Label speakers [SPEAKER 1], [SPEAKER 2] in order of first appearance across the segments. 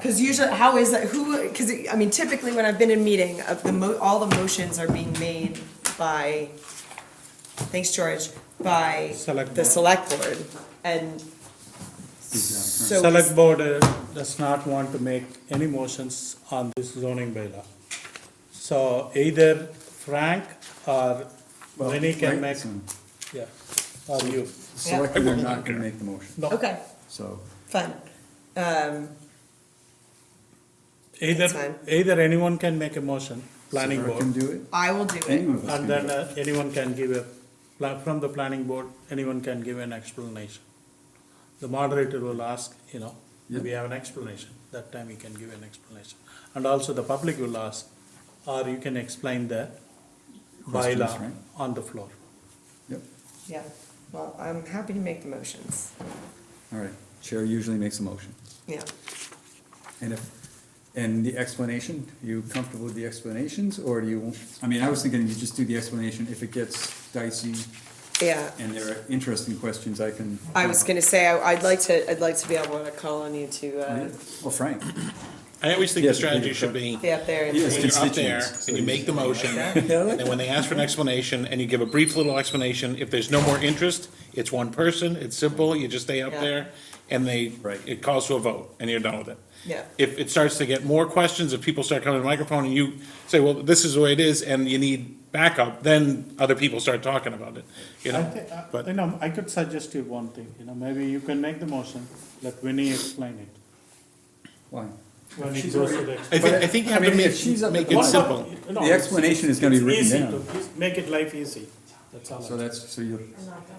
[SPEAKER 1] Because usually, how is that, who, because, I mean, typically when I've been in meeting, of the mo, all the motions are being made by, thanks, George, by
[SPEAKER 2] Select
[SPEAKER 1] the
[SPEAKER 2] board.
[SPEAKER 1] select board. And so,
[SPEAKER 2] Select board uh, does not want to make any motions on this zoning bylaw. So either Frank or Lenny can make, yeah, or you.
[SPEAKER 3] Selectmen are not gonna make the motion,
[SPEAKER 2] No,
[SPEAKER 1] okay,
[SPEAKER 3] so.
[SPEAKER 1] fine. Um, That's
[SPEAKER 2] either,
[SPEAKER 1] fine.
[SPEAKER 2] either anyone can make a motion, planning
[SPEAKER 3] Sarah
[SPEAKER 2] board. Eh,
[SPEAKER 3] Can do it,
[SPEAKER 1] I will do it.
[SPEAKER 3] any of us can
[SPEAKER 2] And
[SPEAKER 3] do
[SPEAKER 2] then
[SPEAKER 3] it.
[SPEAKER 2] uh, anyone can give a, pla- from the planning board, anyone can give an explanation. The moderator will ask, you know, do we have an explanation? That time you can give an explanation. And also the public will ask, or you can explain the
[SPEAKER 3] Questions,
[SPEAKER 2] bylaw
[SPEAKER 3] right?
[SPEAKER 2] on the floor. uh,
[SPEAKER 3] Yep,
[SPEAKER 1] Yeah, well, I'm happy to make the motions,
[SPEAKER 3] all right, chair usually makes a motion,
[SPEAKER 1] yeah.
[SPEAKER 3] and if, and the explanation, you comfortable with the explanations, or do you, I mean, I was thinking you just do the explanation, if it gets dicey
[SPEAKER 1] Yeah,
[SPEAKER 3] and there are interesting questions, I can.
[SPEAKER 1] I was gonna say, I- I'd like to, I'd like to be able to call on you to, uh,
[SPEAKER 3] Well, Frank,
[SPEAKER 4] I always think
[SPEAKER 3] Yeah,
[SPEAKER 4] the
[SPEAKER 3] but
[SPEAKER 4] strategy
[SPEAKER 3] you're
[SPEAKER 4] should be,
[SPEAKER 1] be up there and.
[SPEAKER 3] Yes.
[SPEAKER 4] when you're up there,
[SPEAKER 3] Constituents.
[SPEAKER 4] and you make the motion,
[SPEAKER 3] I like
[SPEAKER 4] and then when they ask for an explanation, and you give a brief little explanation, if there's no more interest, it's one person, it's simple, you just stay up
[SPEAKER 1] Yeah.
[SPEAKER 4] there, and they,
[SPEAKER 3] Right.
[SPEAKER 4] it calls to a vote, and you're done with it.
[SPEAKER 1] Yeah.
[SPEAKER 4] If it starts to get more questions, if people start coming to the microphone, and you say, well, this is the way it is, and you need backup, then other people start talking about it, you
[SPEAKER 2] I
[SPEAKER 4] know?
[SPEAKER 2] thi-
[SPEAKER 3] uh,
[SPEAKER 2] I-
[SPEAKER 4] But
[SPEAKER 2] You know, I could suggest you one thing, you know, maybe you can make the motion, let Winnie explain it.
[SPEAKER 3] why?
[SPEAKER 2] When it goes to the.
[SPEAKER 4] I think, I think you have
[SPEAKER 3] I
[SPEAKER 4] to
[SPEAKER 3] mean,
[SPEAKER 4] make,
[SPEAKER 3] if she's up
[SPEAKER 4] make
[SPEAKER 3] at
[SPEAKER 4] it
[SPEAKER 3] the-
[SPEAKER 4] simple.
[SPEAKER 2] No,
[SPEAKER 3] The explanation is gonna be
[SPEAKER 2] it's
[SPEAKER 3] written
[SPEAKER 2] easy
[SPEAKER 3] down,
[SPEAKER 2] to- just Make it life easy, that's all.
[SPEAKER 3] so that's, so you're,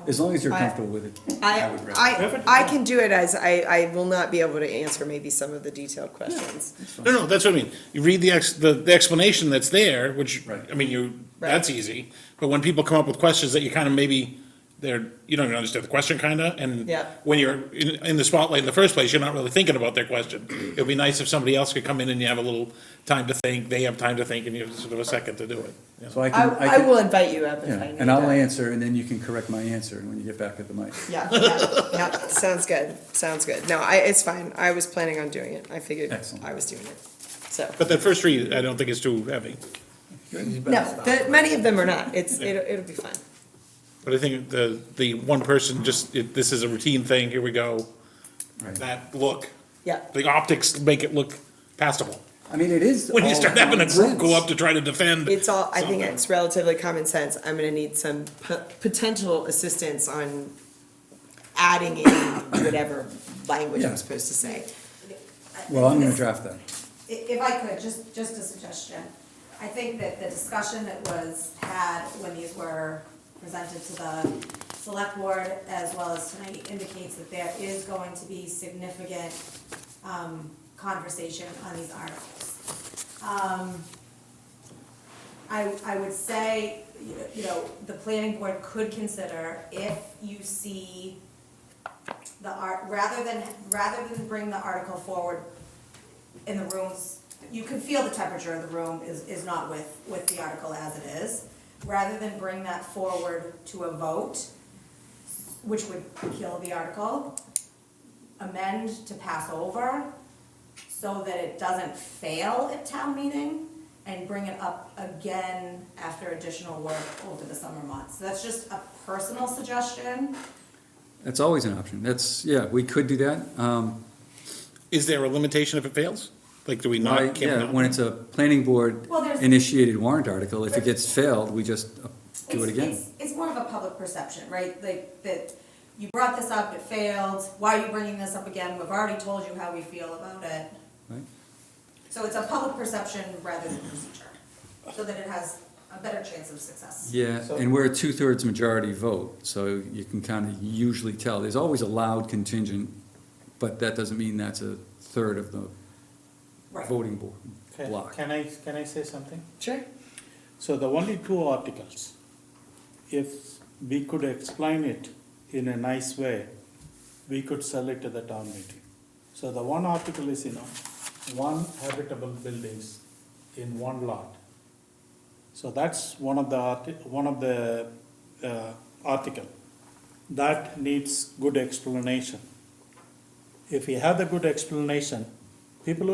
[SPEAKER 3] as long as you're
[SPEAKER 1] I-
[SPEAKER 3] comfortable with it, I
[SPEAKER 1] I,
[SPEAKER 3] would rather.
[SPEAKER 1] I, I can do it as, I, I will not be able to answer maybe some of the detailed questions.
[SPEAKER 4] No, no, that's what I mean. You read the ex, the, the explanation that's there, which,
[SPEAKER 3] Right.
[SPEAKER 4] I mean, you,
[SPEAKER 1] Right.
[SPEAKER 4] that's easy. But when people come up with questions that you kind of maybe, they're, you don't even understand the question kinda, and
[SPEAKER 1] Yeah.
[SPEAKER 4] when you're in, in the spotlight in the first place, you're not really thinking about their question. It'd be nice if somebody else could come in and you have a little time to think, they have time to think, and you have sort of a second to do it. you know?
[SPEAKER 3] So I
[SPEAKER 1] I,
[SPEAKER 3] can,
[SPEAKER 1] I
[SPEAKER 3] can-
[SPEAKER 1] will invite you up if
[SPEAKER 3] Yeah,
[SPEAKER 1] I need
[SPEAKER 3] and I'll
[SPEAKER 1] that.
[SPEAKER 3] answer, and then you can correct my answer when you get back at the mic.
[SPEAKER 1] Yeah, yeah, yeah, sounds good, sounds good. No, I, it's fine, I was planning on doing it, I figured
[SPEAKER 3] Excellent.
[SPEAKER 1] I was doing it, so.
[SPEAKER 4] But that first read, I don't think is too heavy.
[SPEAKER 1] No, the, many of them are not, it's, it'll, it'll be fun.
[SPEAKER 4] But I think the, the one person just, it- this is a routine thing, here we go,
[SPEAKER 3] Right.
[SPEAKER 4] that look,
[SPEAKER 1] Yeah,
[SPEAKER 4] the optics make it look passable.
[SPEAKER 3] I mean, it is.
[SPEAKER 4] when you
[SPEAKER 3] all
[SPEAKER 4] start having a
[SPEAKER 3] common
[SPEAKER 4] group go
[SPEAKER 3] sense.
[SPEAKER 4] up to try to defend.
[SPEAKER 1] it's all, I think
[SPEAKER 4] something.
[SPEAKER 1] it's relatively common sense. I'm gonna need some p- potential assistance on adding in whatever language I'm
[SPEAKER 3] Yeah.
[SPEAKER 1] supposed to say.
[SPEAKER 3] Well, I'm gonna draft that.
[SPEAKER 5] I- If I could, just, just a suggestion. I think that the discussion that was had when these were presented to the select board as well as tonight indicates that there is going to be significant, um, conversation on these articles. Um, I, I would say, you know- you know, the planning board could consider if you see the art, rather than, rather than bring the article forward in the rooms, you can feel the temperature of the room is, is not with, with the article as it is. Rather than bring that forward to a vote, which would kill the article, amend to pass over so that it doesn't fail at town meeting and bring it up again after additional work over the summer months. So That's just a personal suggestion.
[SPEAKER 3] That's always an option. That's, yeah, we could do that. Um,
[SPEAKER 4] Is there a limitation if it fails? Like, do we
[SPEAKER 3] I-
[SPEAKER 4] not? can we
[SPEAKER 3] yeah,
[SPEAKER 4] not-
[SPEAKER 3] when it's a planning board
[SPEAKER 5] Well, there's-
[SPEAKER 3] initiated warrant article, if it gets failed, we just uh, do it
[SPEAKER 5] It's-
[SPEAKER 3] again.
[SPEAKER 5] It's, it's more of a public perception, right? Like, that you brought this up, it failed, why are you bringing this up again? We've already told you how we feel about it.
[SPEAKER 3] right?
[SPEAKER 5] So it's a public perception rather than procedure, so that it has a better chance of success.
[SPEAKER 3] Yeah, and we're a two-thirds majority vote, so you can kind of usually tell. There's always a loud contingent, but that doesn't mean that's a third of the
[SPEAKER 5] Right.
[SPEAKER 3] voting board
[SPEAKER 2] Can-
[SPEAKER 3] block.
[SPEAKER 2] Can I, can I say something?
[SPEAKER 1] Sure.
[SPEAKER 2] So the only two articles, if we could explain it in a nice way, we could sell it to the town meeting. So the one article is, you know, one habitable buildings in one lot. So that's one of the arti- one of the, uh, article. That needs good explanation. If we have the good explanation, people